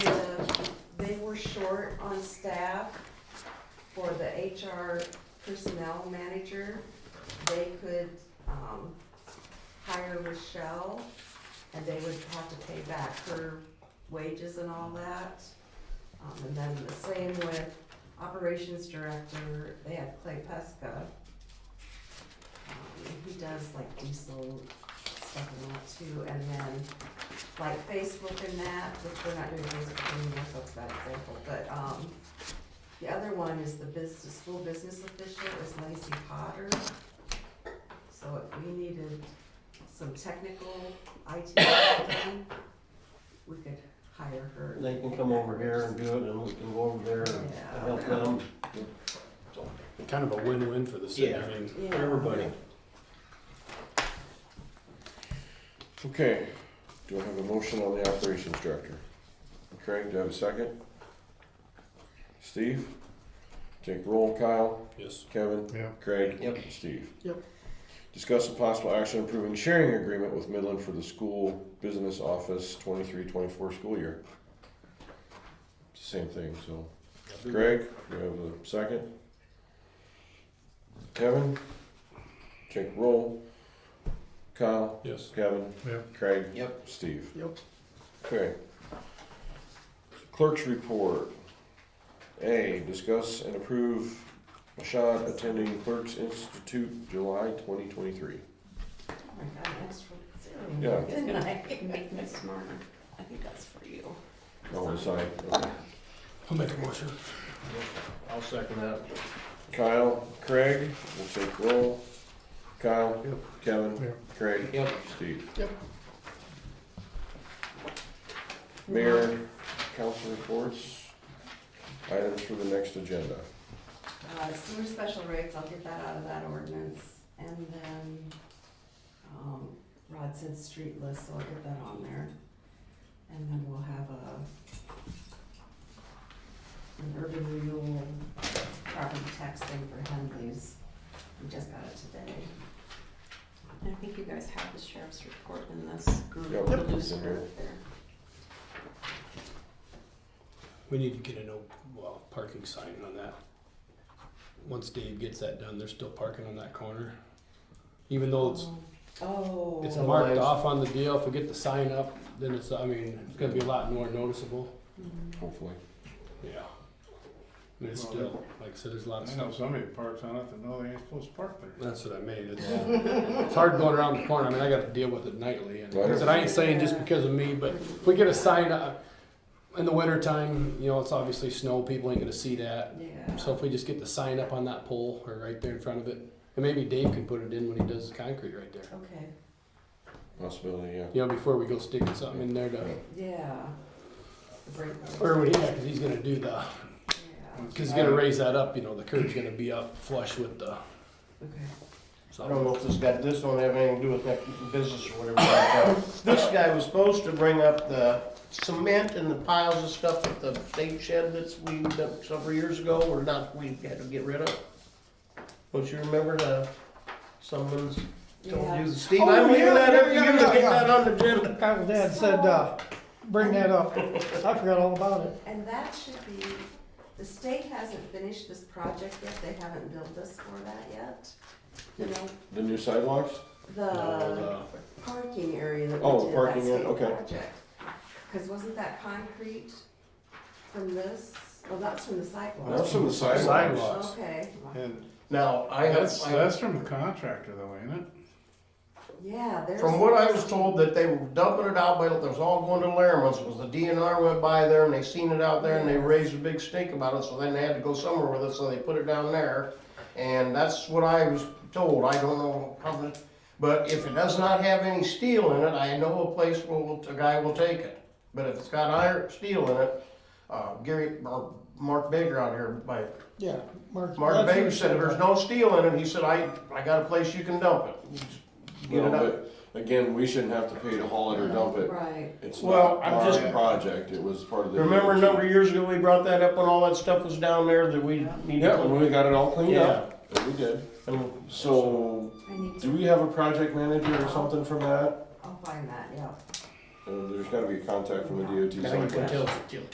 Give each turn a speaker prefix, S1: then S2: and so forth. S1: report on staff for the HR personnel manager. They could, um, hire Rochelle and they would have to pay back her wages and all that. Um, and then the same with operations director, they have Clay Pesca. Um, he does like diesel stuff and that too, and then like Facebook and that, which we're not doing Facebook anymore, so it's a bad example, but, um, the other one is the business, school business official is Lacey Potter. So if we needed some technical IT, done, we could hire her.
S2: They can come over here and do it, and we can go over there and help them.
S3: Kind of a win-win for the city, I
S2: Yeah.
S3: mean,
S1: Yeah.
S3: for everybody.
S4: Okay, do I have a motion on the operations director? Craig, do I have a second? Steve? Take roll, Kyle,
S3: Yes.
S4: Kevin,
S3: Yeah.
S4: Craig.
S2: Yep.
S4: Steve.
S3: Yep.
S4: Discuss the possible action approving sharing agreement with Midland for the school business office twenty-three, twenty-four school year. Same thing, so. Craig, do you have a second? Kevin? Take roll. Kyle,
S3: Yes.
S4: Kevin,
S3: Yep.
S4: Craig.
S2: Yep.
S4: Steve.
S3: Yep.
S4: Okay. Clerk's report. A, discuss and approve Mashad attending Clerk's Institute July twenty twenty-three.
S1: Oh my God, I asked for zero,
S4: Yeah.
S5: It's
S1: didn't I?
S5: gonna make me smarter. I think that's for you.
S4: Oh, I'm sorry. Okay.
S3: I'll make a motion.
S2: I'll second that.
S4: Kyle, Craig, we'll take roll. Kyle,
S3: Yep.
S4: Kevin,
S3: Yep.
S4: Craig,
S2: Yep.
S4: Steve.
S3: Yep.
S4: Mayor, council reports, items for the next agenda.
S1: Uh, sewer special rates, I'll get that out of that ordinance, and then, um, Rod said street list, so I'll get that on there. And then we'll have a, an urban renewal property tax thing for Henleys, we just got it today.
S5: I think you guys have the sheriff's report in this
S4: Yep.
S5: group,
S4: Yep.
S5: blue square there.
S3: We need to get a no, well, parking sign on that. Once Dave gets that done, they're still parking on that corner. Even though it's,
S1: Oh.
S3: it's marked off on the deal, if we get the sign up, then it's, I mean, it's gonna be a lot more noticeable.
S4: Hopefully.
S3: Yeah. I mean, it's still, like I said, there's a lot of
S6: I know
S3: stuff.
S6: somebody parks on it that know they ain't supposed to park there.
S3: That's what I mean, it's, it's hard going around the corner, I mean, I gotta deal with it nightly, and, like I said, I ain't saying just because of me, but if we get a sign up in the winter time, you know, it's obviously snow, people ain't gonna see that,
S1: Yeah.
S3: so if we just get the sign up on that pole, or right there in front of it, and maybe Dave can put it in when he does the concrete right there,
S1: Okay,
S4: Possibility, yeah.
S3: you know, before we go sticking something in there to,
S1: yeah. The break.
S3: or when he, yeah, cause he's gonna do the,
S1: Yeah,
S3: cause he's gonna raise that up, you know, the curb's gonna be up flush with the,
S1: okay.
S2: I don't
S3: so,
S2: know if this got, this don't have anything to do with that business or whatever like that. This guy was supposed to bring up the cement and the piles of stuff at the state shed that's we, that several years ago, or not, we had to get rid of. Don't you remember the, someone's told
S1: Yeah.
S2: you,
S4: Oh,
S2: Steve, I'm leaving that up to you to get that on the agenda.
S7: Kyle's dad said, uh, bring that up. I forgot all about it.
S1: And that should be, the state hasn't finished this project yet, they haven't billed us for that yet. You know,
S4: The new sidewalks?
S1: the
S3: uh,
S1: parking area that we
S4: Oh,
S1: did, that
S4: parking area,
S1: state
S4: okay.
S1: project. Cause wasn't that concrete from this, oh, that's from the sidewalk.
S4: That's from the sidewalks.
S3: sidewalks.
S1: Okay,
S6: And
S2: Now, I have,
S6: that's,
S2: I
S6: that's from the contractor though, ain't it?
S1: yeah, there's.
S2: From what I was told, that they were dumping it out, but it was all going to Laramie's, was the DNR went by there and they seen it out there and they raised a big stink about it, so then they had to go somewhere with it, so they put it down there. And that's what I was told, I don't know how much, but if it does not have any steel in it, I know a place where a guy will take it. But if it's got iron, steel in it, uh, Gary, or Mark Baker out here by
S7: Yeah, Mark.
S2: Mark
S7: that's who
S2: Baker said,
S7: that.
S2: there's no steel in it, he said, I, I got a place you can dump it. You just Get
S4: No,
S2: it out.
S4: but again, we shouldn't have to pay to haul it or dump it.
S1: Right,
S4: It's
S2: Well,
S4: not
S2: I'm
S4: our
S2: just-
S4: project, it was part of the.
S2: Remember a number of years ago, we brought that up when all that stuff was down there that we needed
S4: Yeah,
S2: to.
S4: when we got it all cleaned up, and we did.
S2: And
S4: So,
S1: I need
S4: do
S1: to,
S4: we have a project manager or something from that?
S1: I'll find that, yeah.
S4: Uh, There's gotta be a contact from the DOT
S2: now you can
S4: someplace.
S2: tell-